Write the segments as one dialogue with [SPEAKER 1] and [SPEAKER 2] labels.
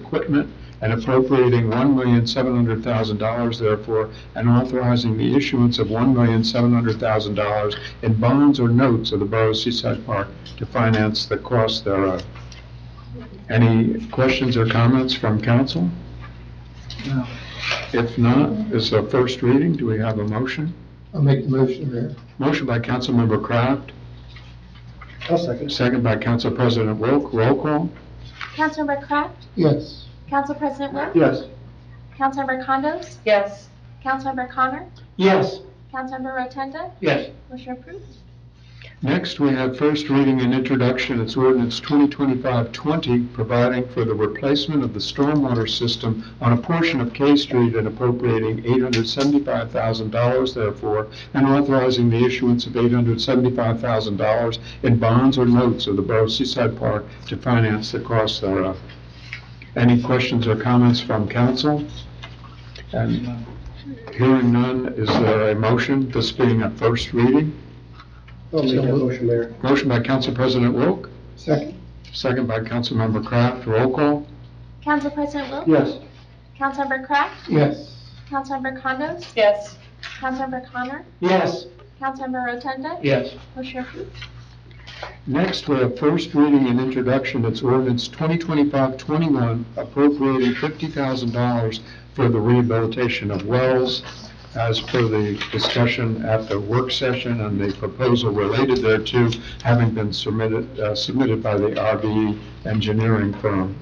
[SPEAKER 1] equipment and appropriating one million seven hundred thousand dollars therefore, and authorizing the issuance of one million seven hundred thousand dollars in bonds or notes of the Borough of Seaside Park to finance the cost thereof. Any questions or comments from council?
[SPEAKER 2] No.
[SPEAKER 1] If not, it's a first reading, do we have a motion?
[SPEAKER 2] I'll make the motion, Mayor.
[SPEAKER 1] Motion by Councilmember Kraft,
[SPEAKER 2] I'll second.
[SPEAKER 1] second by Council President Wilk, roll call.
[SPEAKER 3] Councilmember Kraft,
[SPEAKER 2] Yes.
[SPEAKER 3] Council President Wilk,
[SPEAKER 2] Yes.
[SPEAKER 3] Councilmember Condos,
[SPEAKER 4] Yes.
[SPEAKER 3] Councilmember Connor,
[SPEAKER 2] Yes.
[SPEAKER 3] Councilmember Rotunda,
[SPEAKER 2] Yes.
[SPEAKER 3] motion approved.
[SPEAKER 1] Next, we have first reading and introduction, it's ordinance 2025-20, providing for the replacement of the stormwater system on a portion of K Street and appropriating $875,000 therefore, and authorizing the issuance of $875,000 in bonds or notes of the Borough of Seaside Park to finance the cost thereof. Any questions or comments from council? And hearing none, is there a motion, this being a first reading?
[SPEAKER 2] I'll make that motion, Mayor.
[SPEAKER 1] Motion by Council President Wilk,
[SPEAKER 2] Second.
[SPEAKER 1] second by Councilmember Kraft, roll call.
[SPEAKER 3] Council President Wilk,
[SPEAKER 2] Yes.
[SPEAKER 3] Councilmember Kraft,
[SPEAKER 2] Yes.
[SPEAKER 3] Councilmember Condos,
[SPEAKER 4] Yes.
[SPEAKER 3] Councilmember Connor,
[SPEAKER 2] Yes.
[SPEAKER 3] Councilmember Rotunda,
[SPEAKER 2] Yes.
[SPEAKER 3] motion approved.
[SPEAKER 1] Next, we have first reading and introduction, it's ordinance 2025-21 appropriating $50,000 for the rehabilitation of wells as per the discussion at the work session and the proposal related thereto having been submitted, uh, submitted by the RBE engineering firm.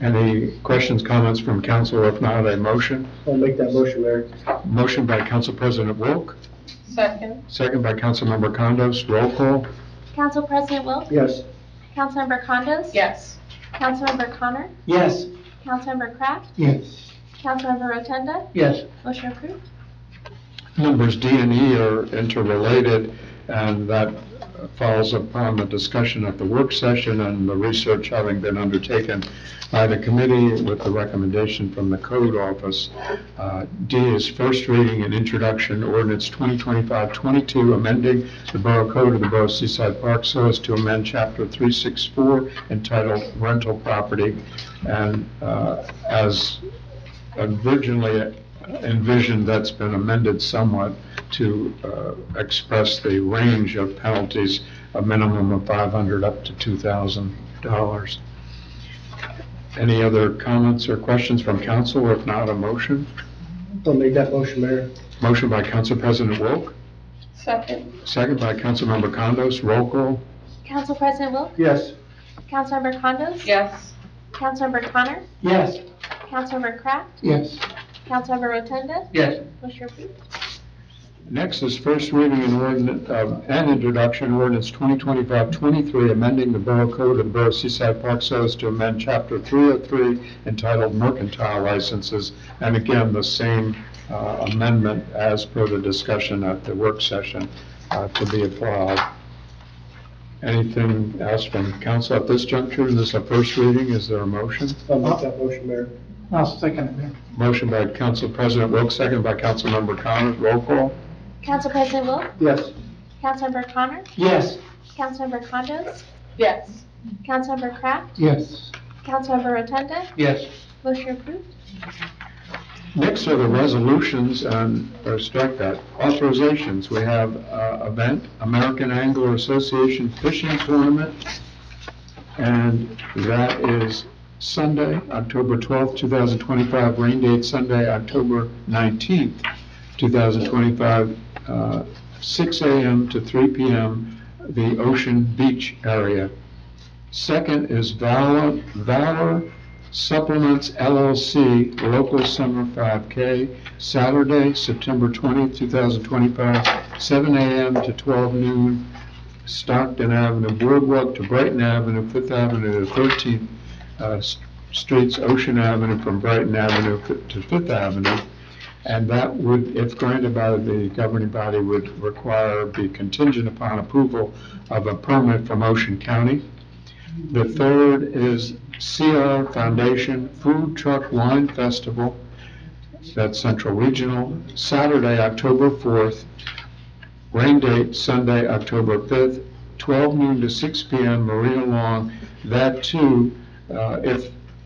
[SPEAKER 1] Any questions, comments from council? If not, a motion?
[SPEAKER 2] I'll make that motion, Mayor.
[SPEAKER 1] Motion by Council President Wilk,
[SPEAKER 4] Second.
[SPEAKER 1] Second by Councilmember Condos, roll call.
[SPEAKER 3] Council President Wilk,
[SPEAKER 2] Yes.
[SPEAKER 3] Councilmember Condos,
[SPEAKER 4] Yes.
[SPEAKER 3] Councilmember Connor,
[SPEAKER 2] Yes.
[SPEAKER 3] Councilmember Kraft,
[SPEAKER 2] Yes.
[SPEAKER 3] Councilmember Rotunda,
[SPEAKER 2] Yes.
[SPEAKER 3] motion approved.
[SPEAKER 1] Numbers D and E are interrelated, and that falls upon the discussion at the work session and the research having been undertaken by the committee with the recommendation from the code office. Uh, D is first reading and introduction ordinance 2025-22, amending the Borough Code of the Borough of Seaside Park so as to amend Chapter 364 entitled Rental Property, and uh, as originally envisioned, that's been amended somewhat to uh, express the range of penalties, a minimum of 500 up to $2,000. Any other comments or questions from council? If not, a motion?
[SPEAKER 2] I'll make that motion, Mayor.
[SPEAKER 1] Motion by Council President Wilk,
[SPEAKER 4] Second.
[SPEAKER 1] second by Councilmember Condos, roll call.
[SPEAKER 3] Council President Wilk,
[SPEAKER 2] Yes.
[SPEAKER 3] Councilmember Condos,
[SPEAKER 4] Yes.
[SPEAKER 3] Councilmember Connor,
[SPEAKER 2] Yes.
[SPEAKER 3] Councilmember Kraft,
[SPEAKER 2] Yes.
[SPEAKER 3] Councilmember Rotunda,
[SPEAKER 2] Yes.
[SPEAKER 3] motion approved.
[SPEAKER 1] Next is first reading and ordinance, and introduction ordinance 2025-23, amending the Borough Code of the Borough of Seaside Park so as to amend Chapter 303 entitled Mercantile Licenses. And again, the same uh, amendment as per the discussion at the work session uh, to be applied. Anything else from council at this juncture? This is a first reading. Is there a motion?
[SPEAKER 2] I'll make that motion, Mayor. I'll second it, Mayor.
[SPEAKER 1] Motion by Council President Wilks, second by Councilmember Connors. Roll call.
[SPEAKER 3] Council President Wilk,
[SPEAKER 2] Yes.
[SPEAKER 3] Councilmember Connor,
[SPEAKER 2] Yes.
[SPEAKER 3] Councilmember Condos,
[SPEAKER 4] Yes.
[SPEAKER 3] Councilmember Kraft,
[SPEAKER 2] Yes.
[SPEAKER 3] Councilmember Rotunda,
[SPEAKER 2] Yes.
[SPEAKER 3] motion approved.
[SPEAKER 1] Next are the resolutions and, or strike that, authorizations. We have uh, event, American Angler Association Fishing Tournament, and that is Sunday, October 12th, 2025, rain date Sunday, October 19th, 2025, uh, 6 a.m. to 3 p.m., the Ocean Beach area. Second is Valor Valor Supplements LLC Local Summer 5K, Saturday, September 20th, 2025, 7 a.m. to 12 noon, Stockton Avenue Boardwalk to Brighton Avenue, Fifth Avenue to 13th uh, s- Streets, Ocean Avenue from Brighton Avenue fi- to Fifth Avenue. And that would, if granted by the governing body, would require, be contingent upon approval of a permit from Ocean County. The third is CR Foundation Food Truck Wine Festival, that's Central Regional, Saturday, October 4th, rain date Sunday, October 5th, 12 noon to 6 p.m., Marina Long. That too, uh, if